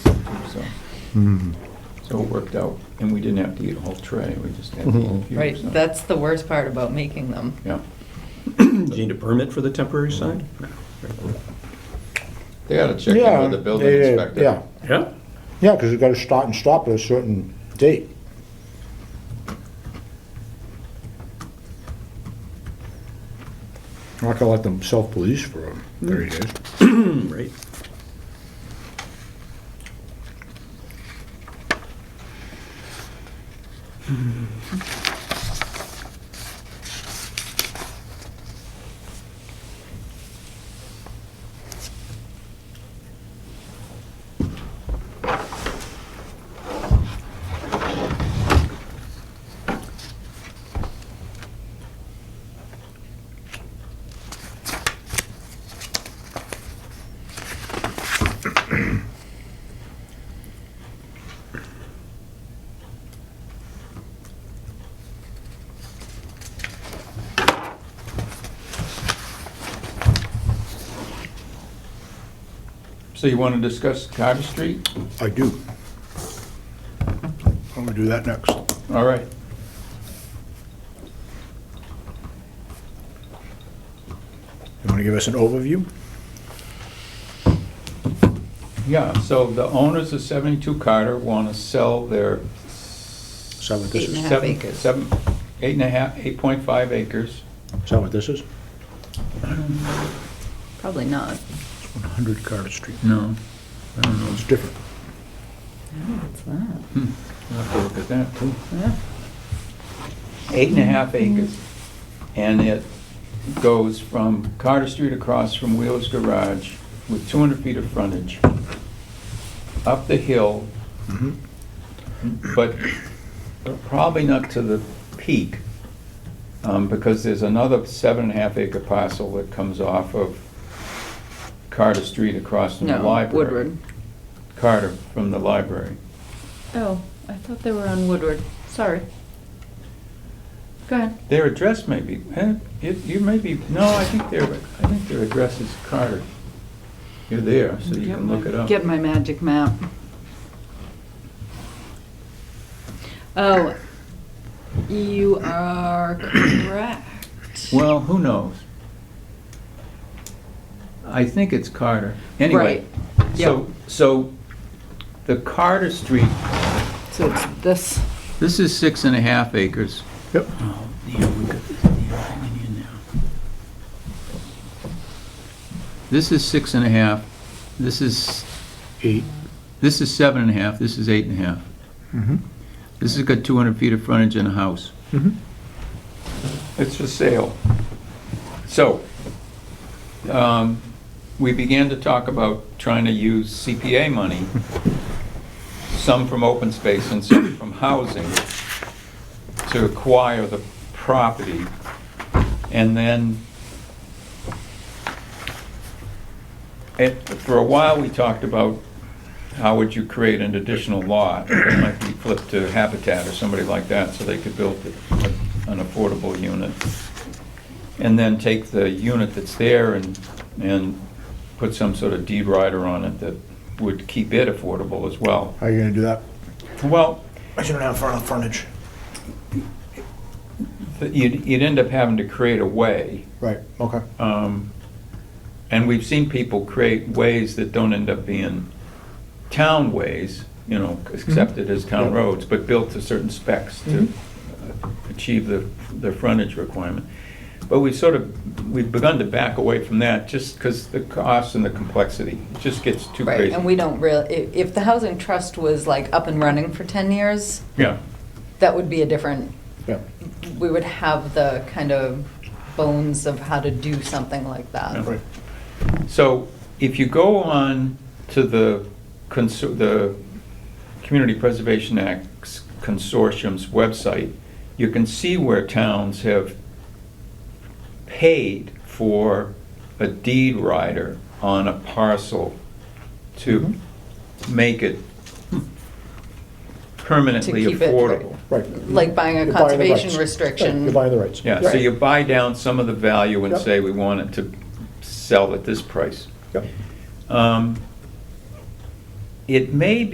so, Mm. so it worked out. And we didn't have to eat a whole tray, we just had to eat a Mm-hmm. few. Right, so- that's the worst part about making them. Yeah. Do you need a permit for the temporary sign? They gotta check in Yeah, with the building yeah, yeah, inspector. Yeah, Yeah. yeah, because you gotta start and stop at a certain date. I'm not gonna let them self-police for um, Mm. thirty days. Hmm, Right. So you wanna discuss Carter Street? I do. I'm gonna do that next. All right. You wanna give us an overview? Yeah, so the owners of 72 Carter want to sell their... Seven, this Eight and a half seven- acres. Seven, eight and a half, 8.5 acres. Is that what this is? Probably not. One hundred Carter Street. No. It's different. What's that? I'll have to look at that, too. Yeah. Eight and a half Mm-hmm. acres. And it goes from Carter Street across from Wheeler's Garage with 200 feet of frontage, up the hill, Mhm. but probably not to the peak, um, because there's another seven and a half acre parcel that comes off of Carter Street across from the No, library. Woodward. Carter from the library. Oh, I thought they were on Woodward. Sorry. Go ahead. Their address may be, eh, it, you may be, no, I think their, I think their address is Carter. You're there, so you Get can my- look it up. Get my magic map. Oh, you are correct. Well, who knows? I think it's Carter. Anyway, Right, so, so the Carter Street, So it's this, this is six and a half acres. Yep. Oh, yeah, we got this damn thing in here now. This is six and a half, this is, Eight. this is seven and a half, this is eight and a half. Mm-hmm. This has got 200 feet of frontage in a house. Mm-hmm. Mhm. It's for sale. So, um, we began to talk about trying to use CPA money, some from open space and some from housing, to acquire the property. And then, it- eh, for a while, we talked about how would you create an additional lot? It might be flipped to Habitat or somebody like that, so they could build a- an affordable unit. And then take the unit that's there and, and put some sort of deed rider on it that would keep it affordable as well. How are you gonna do that? Well, I shouldn't have front frontage. you'd, you'd end up having to create a way. Right, okay. Um, And we've seen people create ways that don't end up being town ways, you know, accepted as town Yeah. roads, but built to certain specs to uh, achieve the, the frontage requirement. But we sort of, we've begun to back away from that just because the cost and the complexity, it just gets too right, crazy. and we don't really, if, if the housing trust was like up and running for ten years, Yeah, that would be a different, Yeah. we would have the kind of bones of how to do something like Yeah. that. Right. so if you go on to the, consu- the Community Preservation Act Consortium's website, you can see where towns have paid for a deed rider on a parcel to Mm-hmm. make it Hmm. permanently To keep it, right. affordable. Right. Like buying a You're buying the conservation rights. restriction. Right, You're buying the rights. Yeah, so Right. you buy down some of the value and Yep. say, we want it to sell at this price. Yep. Um, It may